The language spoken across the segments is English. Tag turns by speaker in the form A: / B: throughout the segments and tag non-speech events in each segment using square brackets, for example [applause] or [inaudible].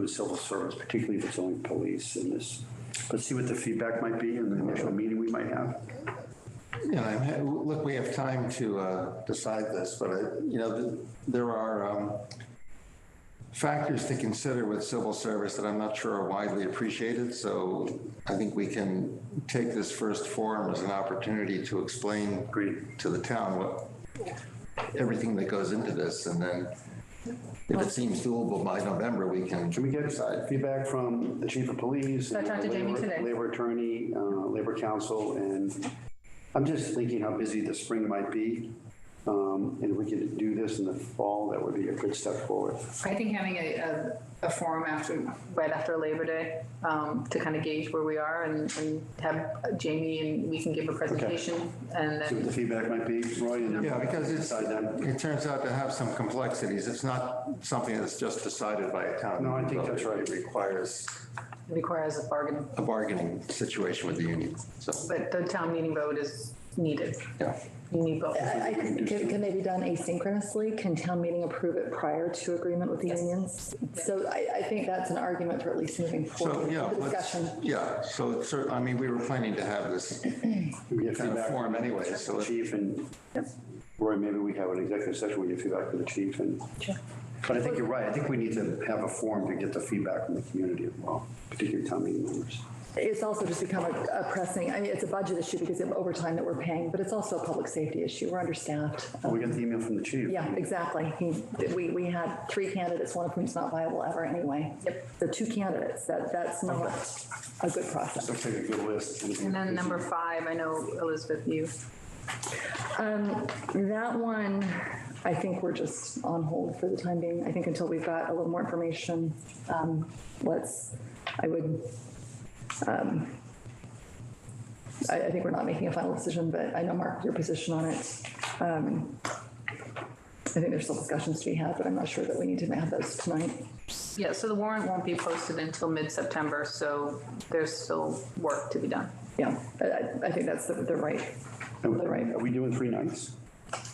A: the civil service, particularly if it's only police in this. Let's see what the feedback might be in the initial meeting we might have.
B: Yeah, I'm ha- look, we have time to uh, decide this, but, uh, you know, th- there are um, factors to consider with civil service that I'm not sure are widely appreciated, so I think we can take this first forum as an opportunity to explain
A: Agreed.
B: to the town what, everything that goes into this, and then if it seems doable by November, we can
A: Can we get feedback from the chief of police?
C: So I talked to Jamie
A: labor-
C: today.
A: Labor attorney, uh, labor council, and I'm just thinking how busy the spring might be. Um, And if we could do this in the fall, that would be a good step forward.
C: I think having a, a, a forum after, right after Labor Day, um, to kind of gauge where we are and, and have Jamie and we can give a presentation and
A: See what
C: then,
A: the feedback might be, Roy. and-
B: Yeah, because it's,
A: Decide then.
B: it turns out to have some complexities. It's not something that's just decided by a town.
A: No, I think that's right.
B: It requires
C: requires a bargain.
B: a bargaining situation with the union, so,
C: But the town meeting vote is needed.
B: yeah.
C: You need both.
D: I- I- Can can they be done asynchronously? Can town meeting approve it prior to agreement with the unions? So I, I think that's an argument for at least moving
B: So,
D: forward
B: yeah,
D: with the
B: let's,
D: discussion.
B: yeah, so, it's cer- I mean, we were planning to have this
A: We get
B: kind of
A: feedback
B: forum anyway, so
A: from the
B: it-
A: chief and, Roy, maybe we have an executive session where you feedback from the chief and. But I think you're right. I think we need to have a forum to get the feedback from the community as well, particularly town meeting members.
D: It's also just become a a pressing, I mean, it's a budget issue because of overtime that we're paying, but it's also a public safety issue. We're understaffed. Uh,
A: Oh, we got the email from the chief.
D: Yeah, exactly. He- We, we had three candidates, one of whom's not viable ever anyway. The two candidates, that, that's not a good process.
A: Looks like a good list.
C: And then number five, I know Elizabeth, you,
D: Um, That one, I think we're just on hold for the time being. I think until we've got a little more information, um, let's, I would, um, I, I think we're not making a final decision, but I know, Mark, your position on it. Um, I think there's still discussions to be had, but I'm not sure that we need to have those tonight.
C: yeah, so the warrant won't be posted until mid-September, so there's still work to be done.
D: Yeah, I- I, I think that's the, the right, the right.
A: Are we doing three nights?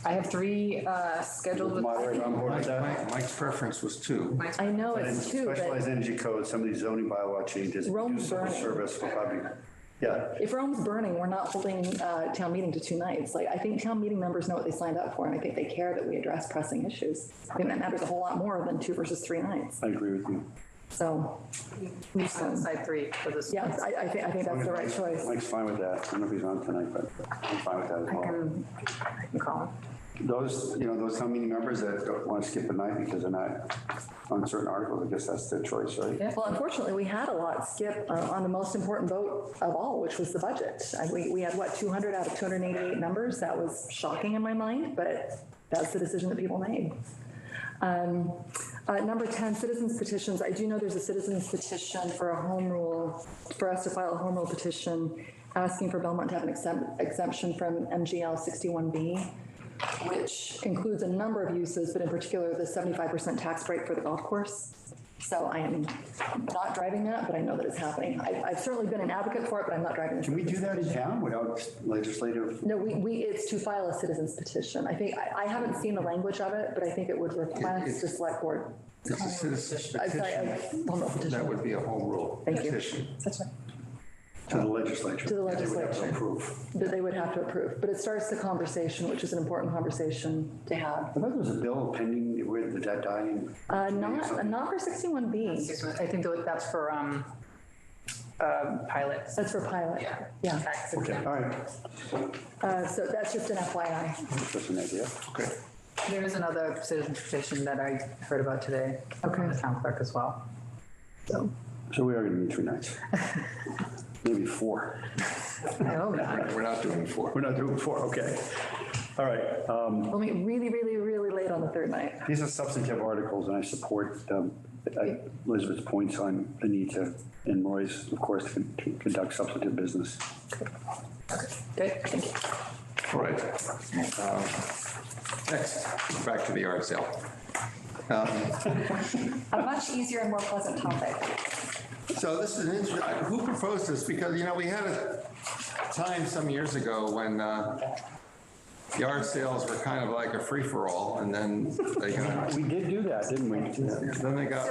C: I have three, uh, scheduled with.
A: Moderator on board with
B: Mike-
D: [laughs]
A: that?
B: Mike- Mike's preference was two.
C: Mike's-
D: I know
A: And
D: Oh, it's two, but
A: Specialized energy code, some of these zoning bylaw changes.
D: Rome
A: do civil
D: burning.
A: Service will probably, yeah.
D: if Rome's burning, we're not holding uh, town meeting to two nights. Like, I think town meeting members know what they signed up for, and I think they care that we address pressing issues. I think that matters a whole lot more than two versus three nights.
A: I agree with you.
D: So,
C: We just have to decide three for this.
D: yeah, I, I think, I think that's the right choice.
A: Mike's fine with that. I don't know if he's on tonight, but I'm fine with that as
C: I
A: well.
C: can, I can call him.
A: Those, you know, those town meeting members that don't want to skip a night because they're not on certain articles, I guess that's their choice, right?
D: Well, unfortunately, we had a lot skip uh, on the most important vote of all, which was the budget. And we, we had, what, 200 out of 288 members? That was shocking in my mind, but that's the decision that people made. Um, uh, Number 10, citizens petitions. I do know there's a citizens petition for a home rule, for us to file a home rule petition asking for Belmont to have an exempt- exemption from MGL 61B, which includes a number of uses, but in particular, the 75% tax break for the golf course. So I am not driving that, but I know that it's happening. I- I've certainly been an advocate for it, but I'm not driving it.
A: Can we do that in town without legislative?
D: No, we, we, it's to file a citizens petition. I think, I, I haven't seen the language of it, but I think it would request the select board.
B: It's a citizen's
D: oh, I'm sorry,
B: petition.
D: a
B: That
D: home rule petition.
B: would be a home rule
D: Thank you.
B: petition.
D: That's right.
A: To the legislature.
D: To the
A: They would have to
D: legislature.
A: approve.
D: That they would have to approve, but it starts the conversation, which is an important conversation to have.
A: I thought there was a bill pending with the debt dying.
D: Uh, not, not for sixty-one B,
C: Six months. I think that- that's for um, um, pilots.
D: that's for pilot. Yeah,
C: Tax
A: Okay,
C: exempt.
A: all right.
D: uh, so that's just an FYI.
A: Just an idea.
B: Okay.
C: There is another citizen petition that I heard about today.
D: Okay.
C: The town clerk as well. So,
A: So we are going to need three
D: [laughs]
A: nights. Maybe four.
C: oh, no, not.
B: We're not doing four.
A: We're not doing four, okay. All right. um,
D: We'll meet really, really, really late on the third night.
A: These are substantive articles, and I support um, I- Elizabeth's points on the need to, and Roy's, of course, to to conduct substantive business.
C: Good, thank you.
B: All right. Um, Next, back to the yard sale. Um,
D: A much easier and more pleasant topic.
B: So this is an interesting, who proposed this? Because, you know, we had a time some years ago when uh, yard sales were kind of like a free-for-all, and then they got,
A: We did do that, didn't we?
B: then they got